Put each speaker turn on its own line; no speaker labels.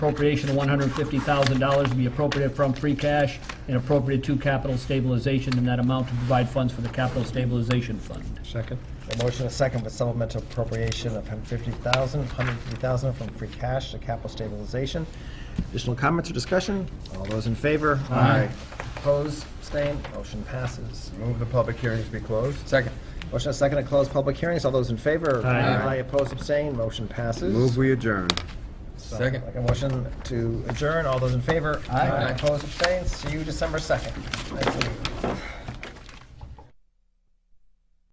Appropriation of $150,000 to be appropriated from free cash and appropriate to capital stabilization in that amount to provide funds for the capital stabilization fund.
Second.
A motion and a second for supplemental appropriation of $150,000, 150000 from free cash to capital stabilization. Additional comments or discussion? All those in favor?
Aye.
Opposed, abstained, motion passes.
Move the public hearings be closed.
Second. Motion and a second to close public hearings. All those in favor?
Aye.
Opposed, abstained, motion passes.
Move we adjourn.
Second. Like a motion to adjourn. All those in favor? Aye. Opposed, abstained. See you December 2nd. Thank you.